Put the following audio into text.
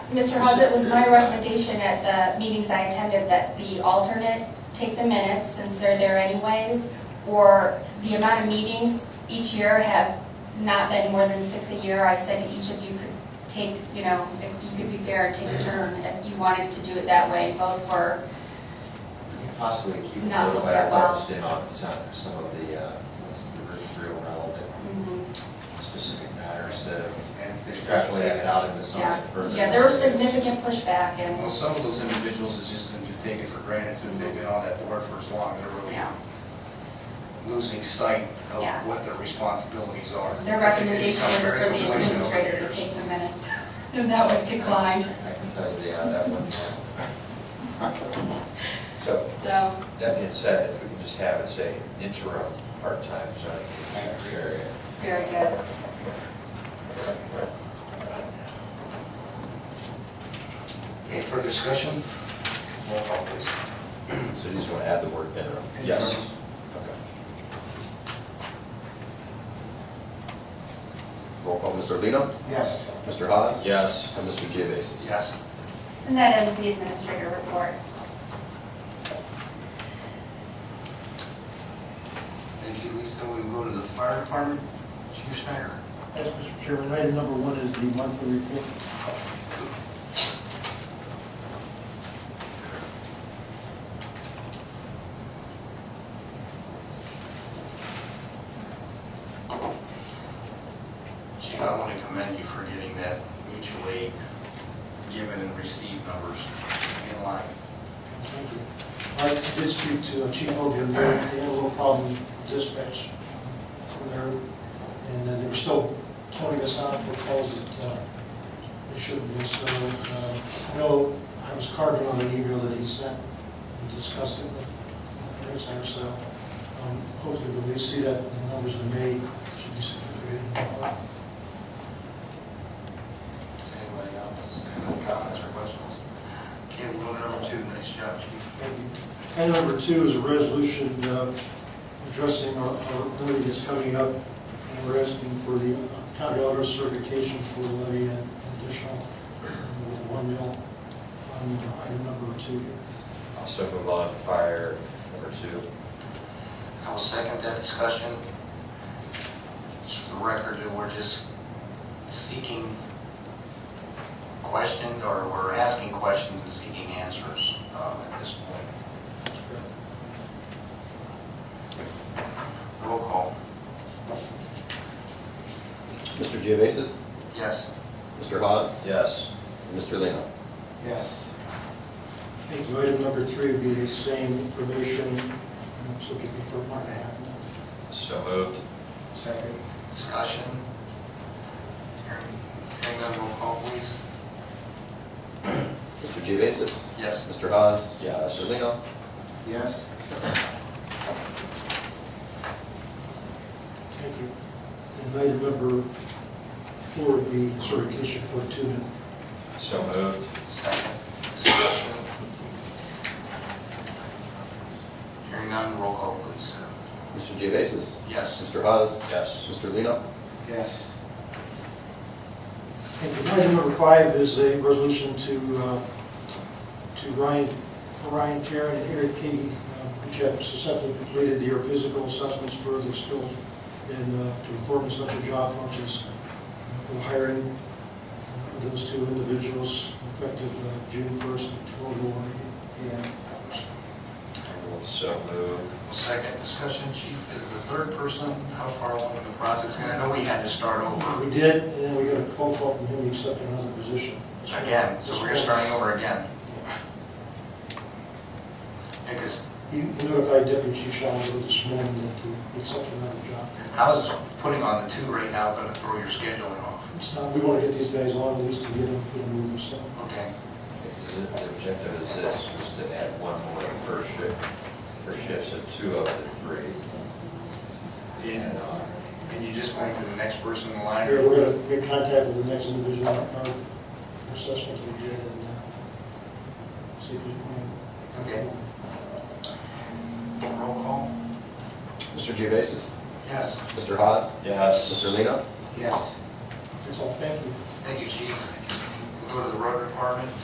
Mr. Hawes, it was my recommendation at the meetings I attended that the alternate take the minutes since they're there anyways, or the amount of meetings each year have not been more than six a year. I said each of you could take, you know, if you could be fair and take a turn if you wanted to do it that way. Both were, Possibly keep it Not little look better that well. focused in on some, some of the, uh, what's the real relevant specific matters that have And there's extrapolated definitely- it out into yeah, something further. yeah, there was significant pushback Well, and, some of those individuals is just going to take it for granted since they've been on that board for as long, they're really yeah. losing sight Yes. of what their responsibilities are. Their recommendation was They become for very the complacent over administrator to years. take the minutes, and that was declined, I can tell you they are that one. So, so. that being said, if we can just have it say interim part-time zoning engineer area. Very good. Okay, further discussion? Roll call, please. So you just want to add the word interim? Yes. Okay. Roll call, Mr. Lino, Yes. Mr. Hawes. Yes. And Mr. Geovasis. Yes. And that ends the administrator report. Thank you, Lisa. We go to the fire department. Chief Snyder. Yes, Mr. Chairman, item number one is the monthly report. Chief, I want to commend you for getting that mutual aid given and received numbers in line. Thank you. I did speak to Chief Hogan, they had a little problem dispatch from there, and then they were still toning us out for calls that uh, they shouldn't be, so, uh, I know I was carving on an email that he sent and discussed it with the parents there, so um, hopefully when we see that in numbers in May, it should be significant. Anybody else? Any comments or questions? Okay, we'll go to number two. Nice job, Chief. Item number two is a resolution uh, addressing our our levy that's coming up, and we're asking for the county auditor certification for the levy and additional uh, one mil on uh, item number two. Also move on to fire number two. I will second that discussion. Just For the record, that we're just seeking questions, or we're asking questions and seeking answers um, at this point. Roll call. Mr. Geovasis. Yes. Mr. Hawes. Yes. And Mr. Lino. Yes. Thank you. Item number three would be the same information, um, so it'd be for one and a half. mil. So moved. Second. Discussion. Hearing hearing none, roll call, please. Mr. Geovasis. Yes. Mr. Hawes. Yes. Mr. Lino. Yes. Thank you. And item number four would be certification for two mil. So moved. Second. Discussion. Hearing none, roll call, please. Mr. Geovasis. Yes. Mr. Hawes. Yes. Mr. Lino. Yes. Item number five is a resolution to, uh, to Ryan, Ryan Karen and Eric Key, uh, which have successfully completed their physical assessments for their skills and uh, to perform such a job functions for hiring those two individuals effective uh, June 1st, 2021. Yeah. So moved. Second discussion, chief, is the third person, how far along in the process? And I know we had to start over We did, and then we got a phone call from him accepting another position. again, so we're starting over again. Because You notified Deputy Chief Shalhoub this morning that he accepted another job. how's putting on the two right now going to throw your scheduling off? It's not, we want to get these guys on, at least to get them, get them moving, so. Okay, Is it- The objective of this was to add one more per shift, per shift, so two of the three. Yeah. and you just went to the next person in line? Here, we're going to make contact with the next individual, our our assessments we did, and uh, see if we can. Okay. Roll call? Mr. Geovasis. Yes. Mr. Hawes. Yes. Mr. Lino. Yes. That's all, thank you. Thank you, chief. go to the road department